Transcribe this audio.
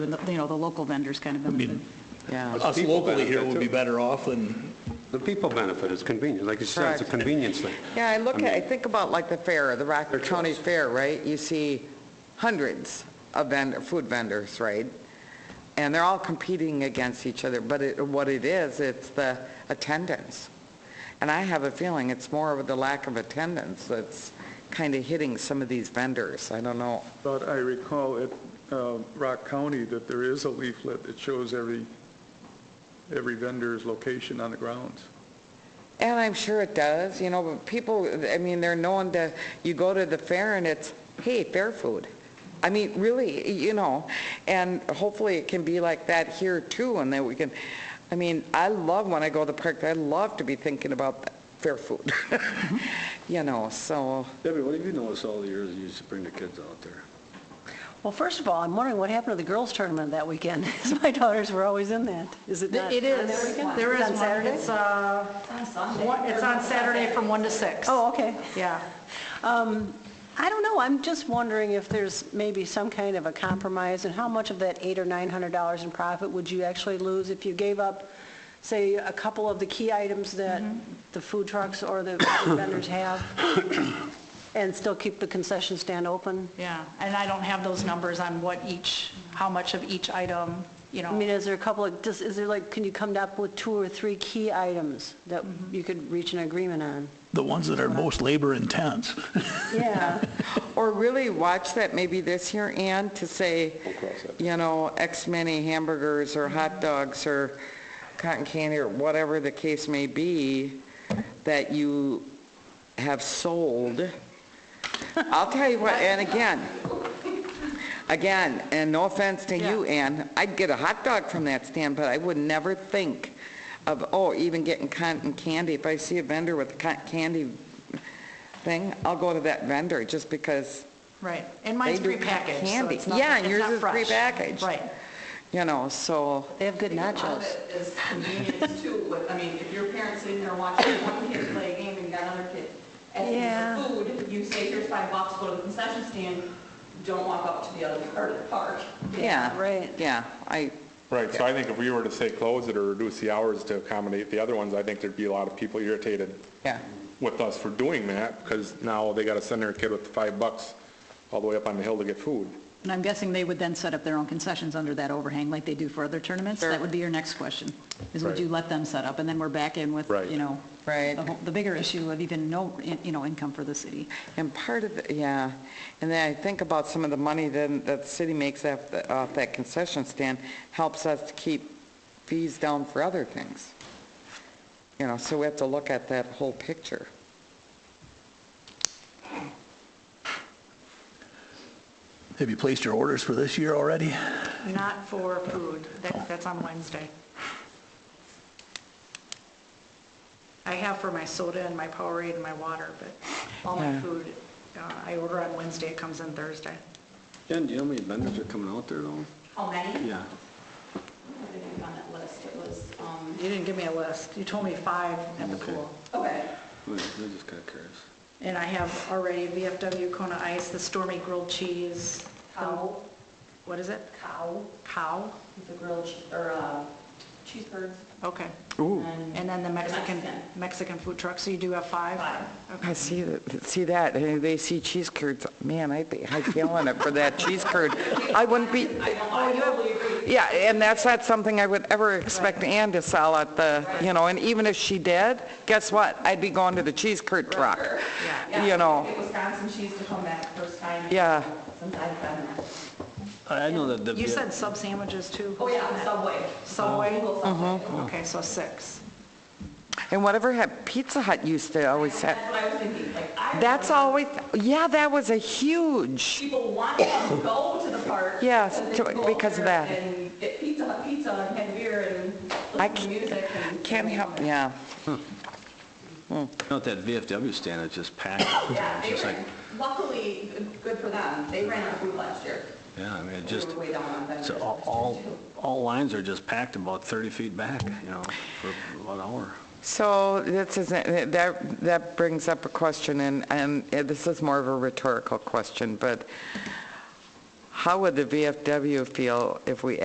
and the- you know, the local vendors kind of benefit. Yeah. Us people locally here benefit would be too. better off than, The people benefit, it's convenient, like you said, it's a Correct. convenience thing. Yeah, I look at, I mean, think about like the fair, the Rockland County Fair, right? You see hundreds of vendor, food vendors, right? And they're all competing against each other, but it, what it is, it's the attendance. And I have a feeling it's more of the lack of attendance that's kind of hitting some of these vendors. I don't know. But I recall at uh, Rock County that there is a leaflet that shows every, every vendor's location on the grounds. And I'm sure it does, you know, but people, I mean, they're known to, you go to the fair and it's, hey, fair food. I mean, really, you know, and hopefully it can be like that here too, and that we can, I mean, I love when I go to the park, I love to be thinking about fair food. You know, so, Debbie, what have you noticed all the years you used to bring the kids out there? Well, first of all, I'm wondering what happened to the girls' tournament that weekend? 'Cause my daughters were always in that. Is it not? It is, there is It's on one, Saturday? it's, uh, On Sunday. one- it's on Saturday from 1 to 6. Oh, okay. Yeah. Um, I don't know, I'm just wondering if there's maybe some kind of a compromise, and how much of that eight or $900 in profit would you actually lose if you gave up, say, a couple of the key items that Mm-hmm. the food trucks or the food vendors have, and still keep the concession stand open? Yeah, and I don't have those numbers on what each, how much of each item, you I mean, know. is there a couple of, just, is there like, can you come up with two or three key items that you could reach an agreement on? the ones that are most labor intense. Yeah. or really watch that maybe this year, Ann, to say, you know, X many hamburgers or hot dogs or cotton candy or whatever the case may be that you have sold. I'll tell you what, and again, again, and no offense to you, Ann, I'd get a hot dog from that stand, but I would never think of, oh, even getting cotton candy. If I see a vendor with a cotton candy thing, I'll go to that vendor just because, Right, and mine's They do prepackaged, so candy. it's not, Yeah, and it's yours not is fresh. prepackaged. Right. you know, so. They have good nachos. It's convenience too, but I mean, if your parents sitting there watching one kid play a game and you got another kid Yeah. asking for food, you say, here's five bucks, go to the concession stand, don't walk up to the other part of the park. Yeah. right. Yeah, I, Right, so I think if we were to say close it or reduce the hours to accommodate the other ones, I think there'd be a lot of people irritated yeah, with us for doing that, because now they gotta send their kid with five bucks all the way up on the hill to get food. And I'm guessing they would then set up their own concessions under that overhang like they do for other tournaments? That would be your next question, is would Right. you let them set up? And then we're back in with, Right. you know, Right. Uh-huh. the whole- the bigger issue of even no, you know, income for the city. and part of, the yeah, and then I think about some of the money then that the city makes off, the- off that concession stand helps us to keep fees down for other things. You know, so we have to look at that whole picture. Have you placed your orders for this year already? Not for food, that, that's on Wednesday. I have for my soda and my Powerade and my water, but all my Yeah. food, uh, I order on Wednesday, it comes in Thursday. Jen, do you know how many vendors are coming out there though? How many? Yeah. I think on that list, it was, um, You didn't give me a list, you told me five at the Okay. pool. okay. I just got curious. And I have already VFW Kona Ice, the Stormy Grilled Cheese. the- Cow. What is it? Cow, Cow? the grilled, che- or, uh, cheeseburgers. Okay. and- And then the Mexican, Mexican. Mexican food truck, so you do have five? Five. I see, that- see that, and they see cheese curds, man, I'd be, I'd be on it for that cheese curd. I wouldn't be, Oh, you have. Yeah, and that's not something I would ever expect Ann to sell at the, you know, and even if she did, guess what? I'd be going to the cheese curd truck, you know. Get Wisconsin cheese to come back first time. Yeah. Since I've been there. I know that the. You said sub sandwiches too? Oh, yeah, Subway. Subway? Mm-hmm. Google Subway. Okay, so six. And whatever had Pizza Hut used to always have, That's what I was thinking, like, I. that's remember always, yeah, that was a huge, People wanted to go to the park. Yes, so they to- could go because of there that. And get pizza, Hut pizza, and have beer, and I listen to music, and. can't help, yeah. Not that VFW stand, it's just packed. Yeah, It's they just like, ran, luckily, good for them, they ran out of food last year. yeah, I mean, it We just, were way down on it's vendors all, last year, all- too. all lines are just packed about 30 feet back, you know, for about an hour. So this is, that, that brings up a question, and, and this is more of a rhetorical question, but How would the VFW feel if we